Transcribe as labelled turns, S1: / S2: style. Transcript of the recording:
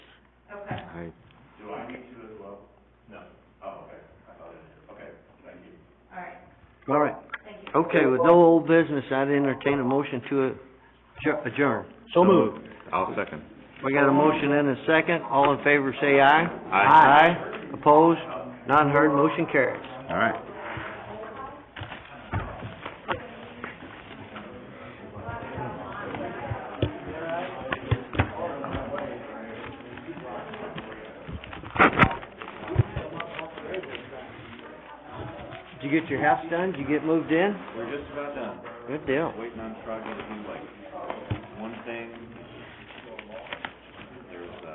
S1: I,
S2: Do I need to as well?
S3: No.
S2: Oh, okay, I thought it did, okay, thank you.
S4: All right,
S1: all right.
S4: thank you.
S1: Okay, with no old business, I'd entertain a motion to adjour- adjourn.
S3: So moved.
S5: I'll second.
S1: We got a motion and a second. All in favor, say aye.
S5: Aye.
S1: Aye. Opposed? None heard. Motion carries.
S5: All right.
S1: Did you get your house done? Did you get moved in?
S2: We're just about done,
S1: Good deal.
S2: waiting on Frog and like, one thing, uh,